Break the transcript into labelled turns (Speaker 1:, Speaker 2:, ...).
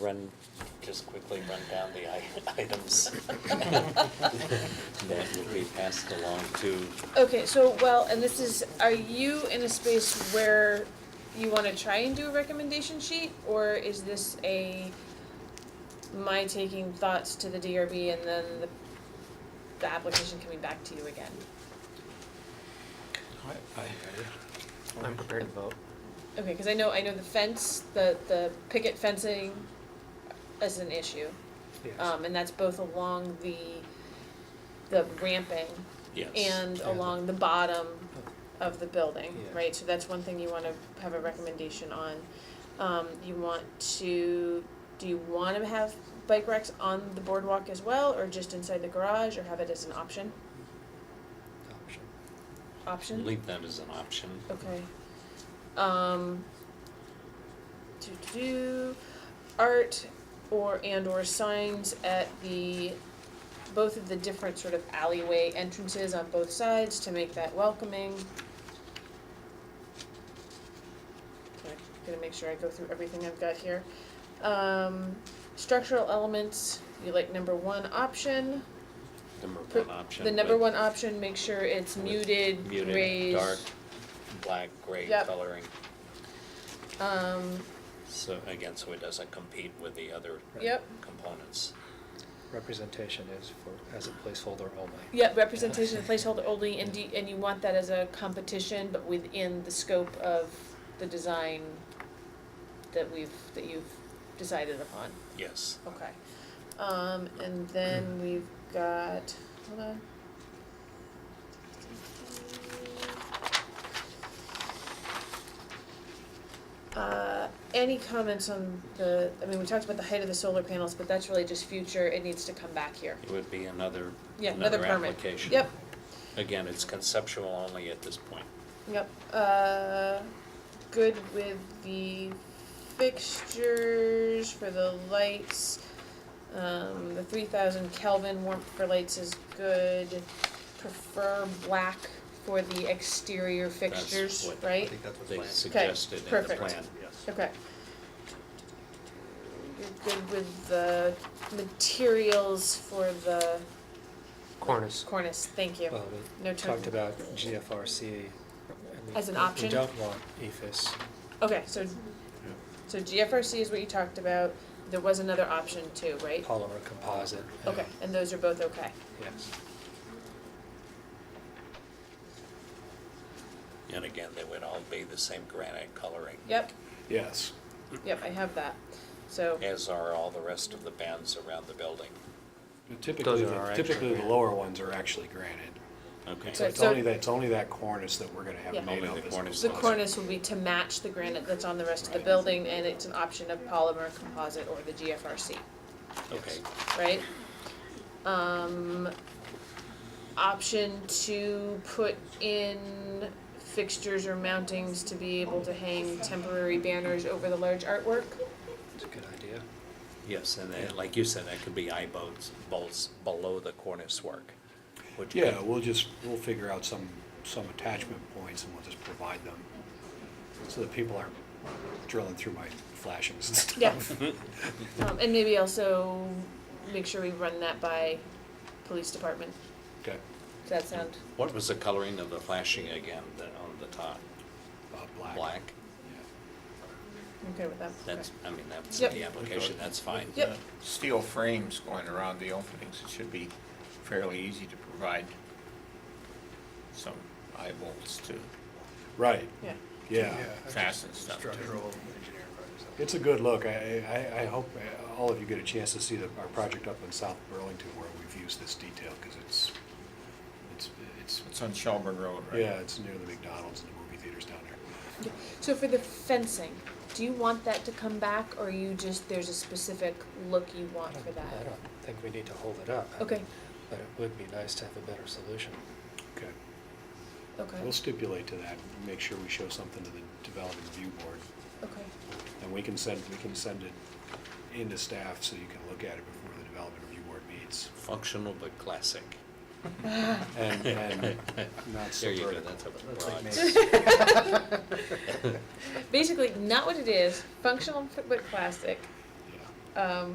Speaker 1: run, just quickly run down the i- items that will be passed along to,
Speaker 2: Okay, so, well, and this is, are you in a space where you wanna try and do a recommendation sheet? Or is this a, my taking thoughts to the DRB and then the, the application coming back to you again?
Speaker 3: I'm prepared to vote.
Speaker 2: Okay, cause I know, I know the fence, the, the picket fencing is an issue. Um, and that's both along the, the ramping
Speaker 1: yes.
Speaker 2: and
Speaker 3: Yeah.
Speaker 2: along the bottom of the building,
Speaker 3: Yeah.
Speaker 2: right? So that's one thing you wanna have a recommendation on. Um, you want to, do you wanna have bike racks on the boardwalk as well, or just inside the garage, or have it as an option? Option?
Speaker 1: Leave that as an option.
Speaker 2: Okay. Um, do, do, do, art or, and or signs at the, both of the different sort of alleyway entrances on both sides to make that welcoming. Okay, Gonna make sure I go through everything I've got here. Um, structural elements, you like number one option.
Speaker 1: Number
Speaker 2: Pr-
Speaker 1: one option.
Speaker 2: The number
Speaker 1: with
Speaker 2: one option, make sure it's
Speaker 1: With
Speaker 2: muted,
Speaker 1: Muted,
Speaker 2: raised.
Speaker 1: dark, black, gray
Speaker 2: Yep.
Speaker 1: coloring.
Speaker 2: Um,
Speaker 1: So again, so it doesn't compete with the other
Speaker 3: Right.
Speaker 2: yep.
Speaker 1: components.
Speaker 3: Representation is for, as a placeholder only.
Speaker 2: Yeah, representation of placeholder only, and do, and you want that as a competition, but within the scope of the design that we've, that you've decided upon,
Speaker 1: Yes.
Speaker 2: okay. Um, and then we've got, hold on. Uh, any comments on the, I mean, we talked about the height of the solar panels, but that's really just future, it needs to come back here.
Speaker 1: It would be another,
Speaker 2: Yeah, another
Speaker 1: another
Speaker 2: permit.
Speaker 1: application.
Speaker 2: Yep,
Speaker 1: Again, it's conceptual only at this point.
Speaker 2: Yep, uh, good with the fixtures for the lights. Um, the three thousand Kelvin warmth for lights is good. Prefer black for the exterior fixtures,
Speaker 1: what-
Speaker 2: right?
Speaker 3: that's
Speaker 1: They suggested in the
Speaker 2: perfect.
Speaker 1: plan.
Speaker 2: Okay. You're good with the materials for the
Speaker 3: Cornice.
Speaker 2: cornice, thank you.
Speaker 3: Well,
Speaker 2: No
Speaker 3: we talked
Speaker 2: term.
Speaker 3: about GFRC. and we-
Speaker 2: As an
Speaker 3: We
Speaker 2: option?
Speaker 3: don't want E EFS.
Speaker 2: Okay, so, so GFRC is what you talked about, there was another option too, right?
Speaker 3: polymer composite. and-
Speaker 2: Okay, and those are both okay,
Speaker 3: Yes.
Speaker 1: And again, they would all be the same granite coloring,
Speaker 2: yep,
Speaker 4: Yes.
Speaker 2: yep, I have that, so,
Speaker 1: as are all the rest of the bands around the building.
Speaker 4: Typically,
Speaker 3: are
Speaker 4: the-
Speaker 3: our actual
Speaker 4: typically the
Speaker 3: granite.
Speaker 4: lower ones are actually granted.
Speaker 1: Okay.
Speaker 2: So-
Speaker 4: So it's only that, it's only that cornice that we're gonna have
Speaker 2: Yeah.
Speaker 4: made
Speaker 1: Only
Speaker 4: up.
Speaker 1: the
Speaker 4: as
Speaker 1: cornice.
Speaker 2: the
Speaker 4: composite.
Speaker 2: cornice will be to match the granite that's on the rest of the
Speaker 4: Right.
Speaker 2: building, and it's an option of polymer composite or the GFRC,
Speaker 1: Okay,
Speaker 2: right? Um, option to put in fixtures or mountings to be able to hang temporary banners over the large artwork,
Speaker 3: It's a good idea.
Speaker 1: yes, and then, like you said, that could be eye bolts, bolts below the cornice work, which.
Speaker 4: Yeah, we'll just, we'll figure out some, some attachment points and we'll just provide them. So that people aren't drilling through my flashings and stuff.
Speaker 2: Yeah. Um, and maybe also make sure we run that by police department.
Speaker 4: Okay,
Speaker 2: Does that sound?
Speaker 1: What was the coloring of the flashing again, the, on the top?
Speaker 4: uh, black.
Speaker 1: Black?
Speaker 4: Yeah.
Speaker 2: I'm okay with that. Okay.
Speaker 1: That's, I mean, that's
Speaker 2: Yep.
Speaker 1: the application, that's fine.
Speaker 2: Yep,
Speaker 5: steel frames going around the openings, it should be fairly easy to provide some eye bolts to
Speaker 4: Right,
Speaker 2: yeah.
Speaker 4: yeah.
Speaker 5: fasten stuff to.
Speaker 4: It's a good look. I, I, I hope uh, all of you get a chance to see the, our project up in South Burlington where we've used this detail, cause it's, it's, it's,
Speaker 5: It's on Shelburne Road, right?
Speaker 4: yeah, it's near the McDonald's and the movie theaters down there.
Speaker 2: So for the fencing, do you want that to come back or you just, there's a specific look you
Speaker 3: I
Speaker 2: want
Speaker 3: don't-
Speaker 2: for
Speaker 3: I
Speaker 2: that?
Speaker 3: don't think we need to hold it up. I
Speaker 2: Okay.
Speaker 3: mean, But it would be nice to have a better solution.
Speaker 4: Okay. We'll
Speaker 2: Okay,
Speaker 4: stipulate to that, and make sure we show something to the development review board,
Speaker 2: okay,
Speaker 4: and we can send, we can send it into staff so you can look at it before the development review board meets.
Speaker 1: Functional but classic.
Speaker 4: And, and not so
Speaker 1: There you go,
Speaker 4: vertical.
Speaker 1: that's a
Speaker 3: Looks like
Speaker 1: broad.
Speaker 3: maybe
Speaker 2: basically, not what it is, functional but plastic,
Speaker 4: Yeah.
Speaker 2: um,